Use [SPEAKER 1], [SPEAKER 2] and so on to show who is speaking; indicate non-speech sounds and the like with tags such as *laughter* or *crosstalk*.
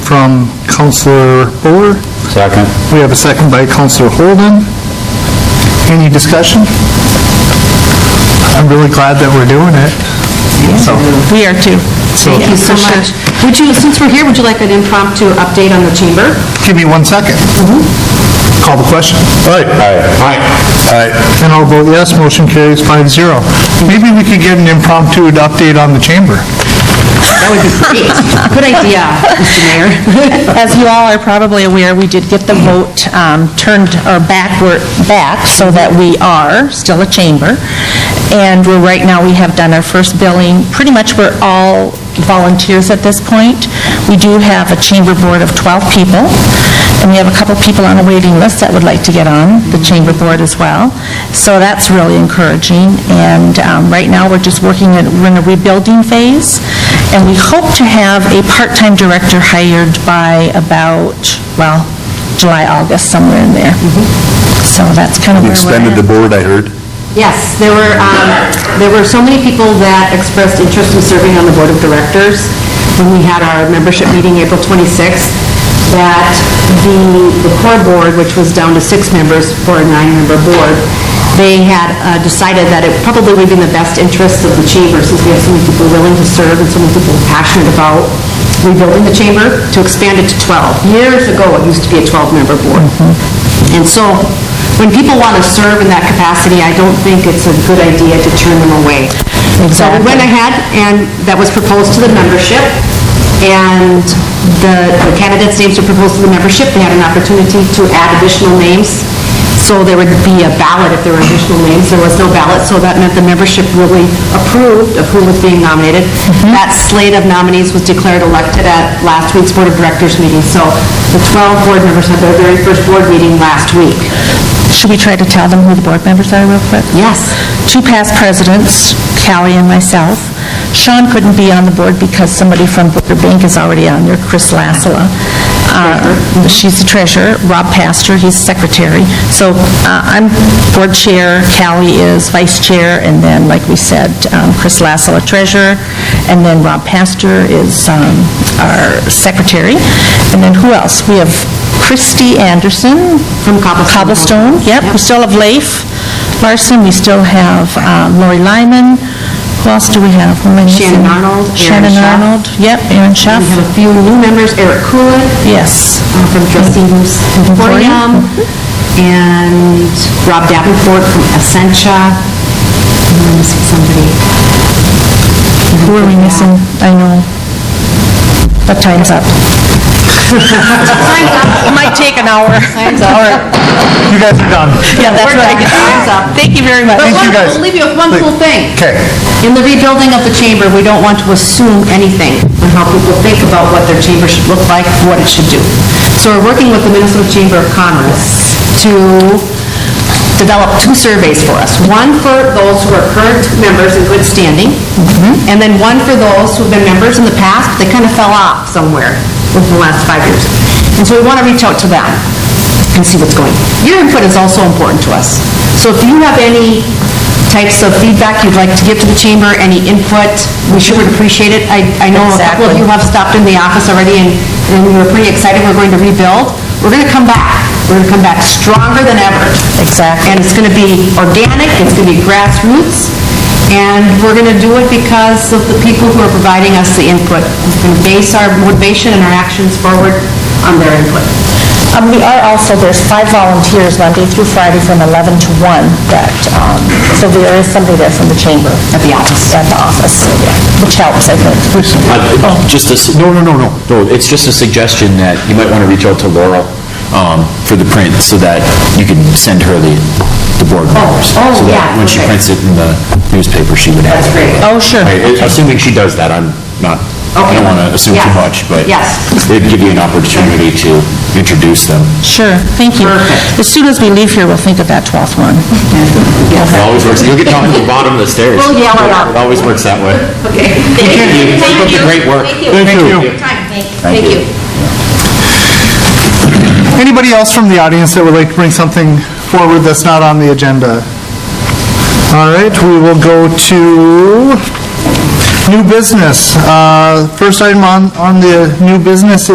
[SPEAKER 1] from Counselor Buller.
[SPEAKER 2] Second.
[SPEAKER 1] We have a second by Counselor Holden. Any discussion? I'm really glad that we're doing it. So,
[SPEAKER 3] We are too.
[SPEAKER 1] So-
[SPEAKER 3] Thank you so much.
[SPEAKER 4] Would you, since we're here, would you like an impromptu update on the chamber?
[SPEAKER 1] give me one second. Call the question.
[SPEAKER 2] Aye. Aye. Aye.
[SPEAKER 1] And I'll vote yes, motion carries five zero. Maybe we could get an impromptu update on the chamber.
[SPEAKER 4] That would be
[SPEAKER 3] *laughs*
[SPEAKER 4] great. Good idea, Mr. Mayor.
[SPEAKER 3] As you all are probably aware, we did get the vote um, turned, or backward, back, so that we are still a chamber. And we're, right now, we have done our first billing. Pretty much, we're all volunteers at this point. We do have a chamber board of 12 people, and we have a couple people on a waiting list that would like to get on the chamber board as well. So that's really encouraging. And um, right now, we're just working, in- we're in a rebuilding phase, and we hope to have a part-time director hired by about, well, July, August, somewhere in there. So that's kind of where we're at.
[SPEAKER 2] Extended the board, I heard.
[SPEAKER 4] Yes, there were, um, there were so many people that expressed interest in serving on the Board of Directors when we had our membership meeting April 26th, that the, the core board, which was down to six members for a nine-member board, they had uh, decided that it probably would be in the best interest of the chamber, since we have so many people willing to serve and so many people passionate about rebuilding the chamber, to expand it to 12. Years ago, it used to be a 12-member board. And so, when people want to serve in that capacity, I don't think it's a good idea to turn them away. So we went ahead, and that was proposed to the membership, and the the candidates' names were proposed to the membership. They had an opportunity to add additional names, so there would be a ballot if there were additional names. There was no ballot, so that meant the membership really approved of who was being nominated.
[SPEAKER 3] Mm-hmm.
[SPEAKER 4] That slate of nominees was declared elected at last week's Board of Directors meeting, so the 12 board members had their very first board meeting last week.
[SPEAKER 3] Should we try to tell them who the board members are real quick?
[SPEAKER 4] Yes.
[SPEAKER 3] Two past presidents, Callie and myself. Sean couldn't be on the board because somebody from Booker Bank is already on there, Chris Lassala. Uh, She's the treasurer, Rob Pastor, he's secretary. So uh, I'm board chair, Callie is vice chair, and then, like we said, um, Chris Lassala, treasurer, and then Rob Pastor is um, our secretary. And then who else? We have Christy Anderson.
[SPEAKER 4] From Cobblestone.
[SPEAKER 3] Cobblestone, yep. We
[SPEAKER 4] Yep.
[SPEAKER 3] still have Leif Larson, we still have um, Lori Lyman. Who else do we have? Who am I missing?
[SPEAKER 4] Shannon Arnold, Aaron
[SPEAKER 3] Shannon
[SPEAKER 4] Schaff.
[SPEAKER 3] Arnold, yep, Aaron Schaff,
[SPEAKER 4] We have a few new members, Eric Coolin
[SPEAKER 3] yes.
[SPEAKER 4] uh, from Trustees Emporium, and Rob Davenport from Essentia, and I'm missing somebody.
[SPEAKER 3] Who are we missing? I know. But time's up. It might take an hour. Time's up.
[SPEAKER 1] You guys are done.
[SPEAKER 3] Yeah, that's what I get.
[SPEAKER 4] Time's up.
[SPEAKER 3] Thank you very much.
[SPEAKER 4] But
[SPEAKER 1] you,
[SPEAKER 4] one-
[SPEAKER 1] guys.
[SPEAKER 4] I'll leave you with one cool thing.
[SPEAKER 1] Okay.
[SPEAKER 4] In the rebuilding of the chamber, we don't want to assume anything on how people think about what their chamber should look like, what it should do. So we're working with the Minnesota Chamber of Commerce to develop two surveys for us. One for those who are current members in good standing,
[SPEAKER 3] Mm-hmm.
[SPEAKER 4] and then one for those who've been members in the past, but they kind of fell off somewhere over the last five years. And so we want to reach out to them and see what's going. Your input is also important to us. So if you have any types of feedback you'd like to give to the chamber, any input, we sure would appreciate it. I, I know a couple of you have stopped in the office already and, and we were pretty excited, we're going to rebuild. We're going to come back. We're going to come back stronger than ever. Exactly. And it's going to be organic, it's going to be grassroots, and we're going to do it because of the people who are providing us the input. We're going to base our motivation and our actions forward on their input.
[SPEAKER 3] Um, we are also, there's five volunteers Monday through Friday from 11 to 1 that, um, so there is somebody there from the chamber. At the office. At the office, which helps, I think.
[SPEAKER 5] Uh, Just a... No, no, no, no. No, it's just a suggestion that you might want to reach out to Laurel um, for the print so that you can send her the, the board members.
[SPEAKER 4] oh,
[SPEAKER 5] So
[SPEAKER 4] yeah,
[SPEAKER 5] that when she
[SPEAKER 4] okay.
[SPEAKER 5] prints it in the newspaper, she would have.
[SPEAKER 4] That's great.
[SPEAKER 3] Oh, sure.
[SPEAKER 5] I- Assuming she does that, I'm not, I
[SPEAKER 4] Okay.
[SPEAKER 5] don't want to assume too
[SPEAKER 4] Yeah.
[SPEAKER 5] much, but
[SPEAKER 4] Yes.
[SPEAKER 5] it'd give you an opportunity to introduce them.
[SPEAKER 3] Sure, thank you.
[SPEAKER 4] Perfect.
[SPEAKER 3] As soon as we leave here, we'll think of that 12th one.
[SPEAKER 5] It always works. You'll get down to the bottom of the stairs.
[SPEAKER 4] We'll yell it out.
[SPEAKER 5] It always works that way. Thank you. Keep up the great work.
[SPEAKER 1] Thank you.
[SPEAKER 5] Thank you.
[SPEAKER 1] Anybody else from the audience that would like to bring something forward that's not on the agenda? All right, we will go to new business. Uh, First item on, on the new business